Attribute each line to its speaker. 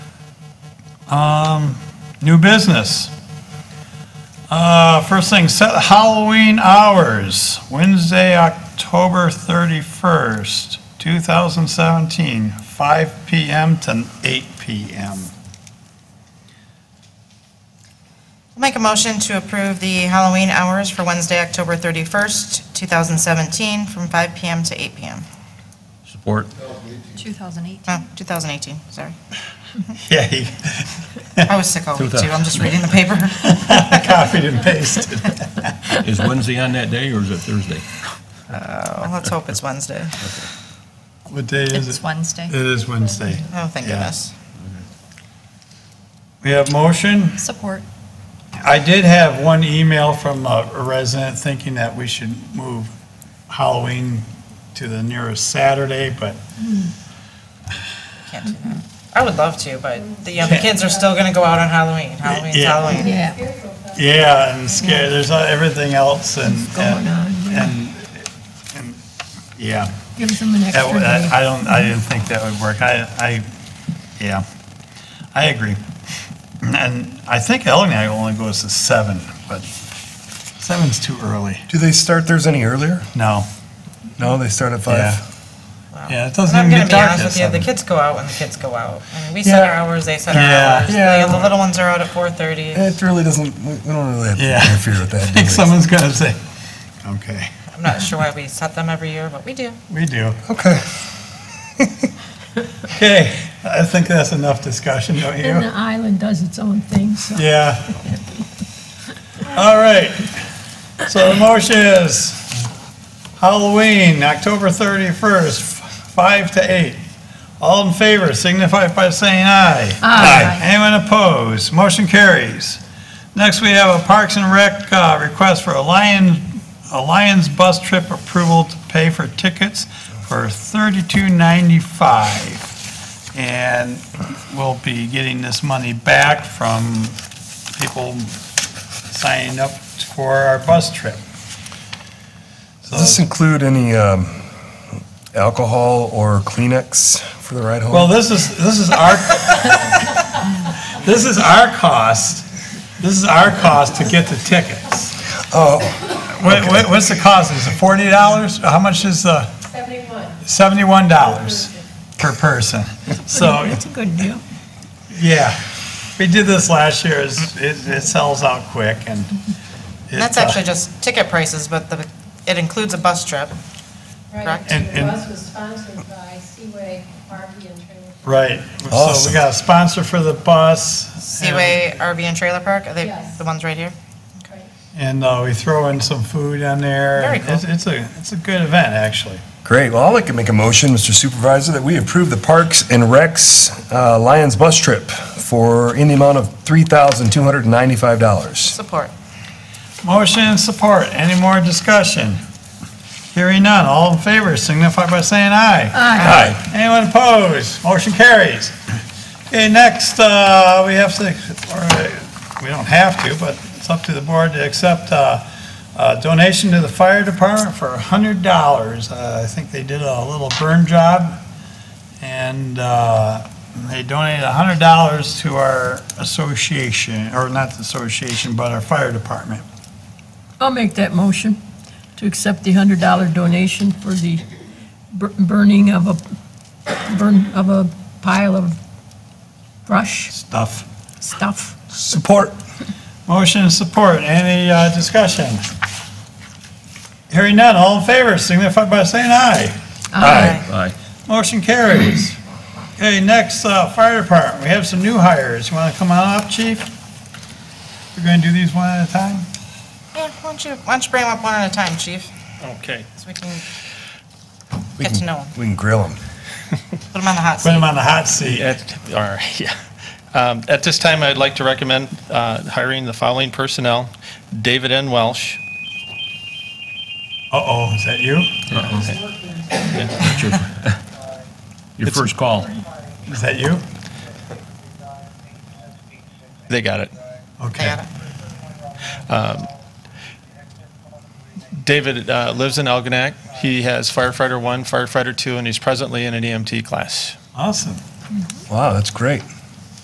Speaker 1: Um, new business. Uh, first thing, set Halloween hours, Wednesday, October 31st, 2017, 5 PM to 8 PM.
Speaker 2: I'll Make a motion to approve the Halloween hours for Wednesday, October 31st, 2017, from 5 PM to 8 PM.
Speaker 3: Support.
Speaker 4: 2018.
Speaker 2: Oh, 2018, sorry.
Speaker 1: Yay,
Speaker 2: I was sick all week, too. I'm just reading the paper.
Speaker 1: I copied and pasted.
Speaker 3: Is Wednesday on that day or is it Thursday?
Speaker 2: Well, Oh, Let's hope it's Wednesday.
Speaker 1: What day is it?
Speaker 4: It's Wednesday.
Speaker 1: It is Wednesday.
Speaker 2: Oh, thank
Speaker 1: Yeah.
Speaker 2: goodness.
Speaker 1: We have motion.
Speaker 4: Support.
Speaker 1: I did have one email from a a resident thinking that we should move Halloween to the nearest Saturday, but
Speaker 2: Can't do that. I would love to, but the young kids are still going to go out on Halloween. Halloween's
Speaker 1: Yeah.
Speaker 2: Halloween.
Speaker 4: Yeah.
Speaker 1: yeah, and scare, there's uh, everything else and. and- And, and, yeah,
Speaker 4: Gives them an
Speaker 1: that,
Speaker 4: extra
Speaker 1: would-
Speaker 4: day.
Speaker 1: I I don't, I didn't think that would work. I, I, yeah, I agree. And I think Ellen and I only goes to seven, but seven's too early.
Speaker 5: Do they start theirs any earlier?
Speaker 1: No,
Speaker 5: No, they start at five.
Speaker 1: yeah. Yeah, it doesn't
Speaker 2: And I'm
Speaker 1: even get
Speaker 2: going to be
Speaker 1: dark
Speaker 2: honest
Speaker 1: at
Speaker 2: with you, the
Speaker 1: seven.
Speaker 2: kids go out when the kids go out. I mean, We set our
Speaker 5: Yeah.
Speaker 2: hours, they set our
Speaker 1: Yeah.
Speaker 2: hours.
Speaker 5: Yeah.
Speaker 2: The the little ones are out at 4:30.
Speaker 5: It really doesn't, we we don't really have
Speaker 1: Yeah.
Speaker 5: to interfere with that.
Speaker 1: I
Speaker 5: do
Speaker 1: think
Speaker 5: we?
Speaker 1: someone's gonna say, okay,
Speaker 2: I'm not sure why we set them every year, but we do.
Speaker 1: we do.
Speaker 5: Okay.
Speaker 1: Okay, I think that's enough discussion, don't
Speaker 6: And the
Speaker 1: you?
Speaker 6: island does its own thing, so.
Speaker 1: Yeah. All right, so the motion is Halloween, October 31st, 5 to 8. All in favor signify by saying aye.
Speaker 6: Aye.
Speaker 1: Anyone opposed? Motion carries. Next, we have a Parks and Rec uh, request for a Lion, a Lions bus trip approval to pay for tickets for $32.95. And we'll be getting this money back from people signing up for our bus trip. So-
Speaker 5: Does this include any um, alcohol or Kleenex for the ride home?
Speaker 1: Well, this is, this is our, this is our cost, this is our cost to get the tickets.
Speaker 5: oh,
Speaker 1: What, what- what's the cost? Is it forty dollars? How much is the? Seventy-one. Seventy-one dollars per person. So,
Speaker 6: It's a good deal.
Speaker 1: yeah, we did this last year. It's- It, it sells out quick and. it,
Speaker 2: That's
Speaker 1: uh,
Speaker 2: actually just ticket prices, but the, it includes a bus trip.
Speaker 7: Right,
Speaker 2: Correct.
Speaker 7: and
Speaker 1: And-
Speaker 7: the bus was sponsored by Seaway RV and Trailer.
Speaker 1: Right. So we
Speaker 5: Awesome.
Speaker 1: got a sponsor for the bus.
Speaker 2: Seaway RV and Trailer Park, are they
Speaker 7: Yes.
Speaker 2: the ones right here?
Speaker 1: And, uh, we throw in some food on there.
Speaker 2: Very
Speaker 1: and it's- It's a, it's a good event, actually.
Speaker 5: great. Well, I'd like to make a motion, Mr. Supervisor, that we approve the Parks and Recs uh, Lions bus trip for in the amount of $3,295.
Speaker 2: Support.
Speaker 1: Motion and support. Any more discussion? Hearing none. All in favor signify by saying aye.
Speaker 5: Aye.
Speaker 1: Anyone opposed? Motion carries. Okay, next, uh, we have to, or, uh, we don't have to, but it's up to the board to accept uh, a donation to the fire department for $100. Uh, I think they did a little burn job, and uh, they donated $100 to our association, or not the association, but our fire department.
Speaker 6: I'll make that motion to accept the hundred dollar donation for the bur- burning of a, burn of a pile of brush
Speaker 1: Stuff.
Speaker 6: stuff.
Speaker 5: Support.
Speaker 1: Motion and support. Any uh, discussion? Hearing none. All in favor signify by saying aye.
Speaker 5: Uh, Aye.
Speaker 3: Aye.
Speaker 1: Motion carries. Okay, next, uh, fire department, we have some new hires. You want to come on up, chief? We're going to do these one at a time?
Speaker 2: Yeah, why don't you, why don't you bring them up one at a time, chief?
Speaker 8: Okay,
Speaker 2: So we can
Speaker 5: We
Speaker 2: get to
Speaker 5: can-
Speaker 2: know them,
Speaker 5: We can grill them.
Speaker 2: put them on the hot
Speaker 1: Put them
Speaker 2: seat.
Speaker 1: on the hot seat.
Speaker 8: at, all right, yeah. Um, At this time, I'd like to recommend uh, hiring the following personnel. David N. Welsh,
Speaker 1: Uh-oh, is that you?
Speaker 3: That's your- Your
Speaker 8: It's-
Speaker 3: first call.
Speaker 1: Is that you?
Speaker 8: they got it.
Speaker 2: They
Speaker 1: Okay.
Speaker 2: got it.
Speaker 8: David uh, lives in Elginak. He has firefighter one, firefighter two, and he's presently in an EMT E class.
Speaker 1: Awesome.
Speaker 5: Wow, that's great.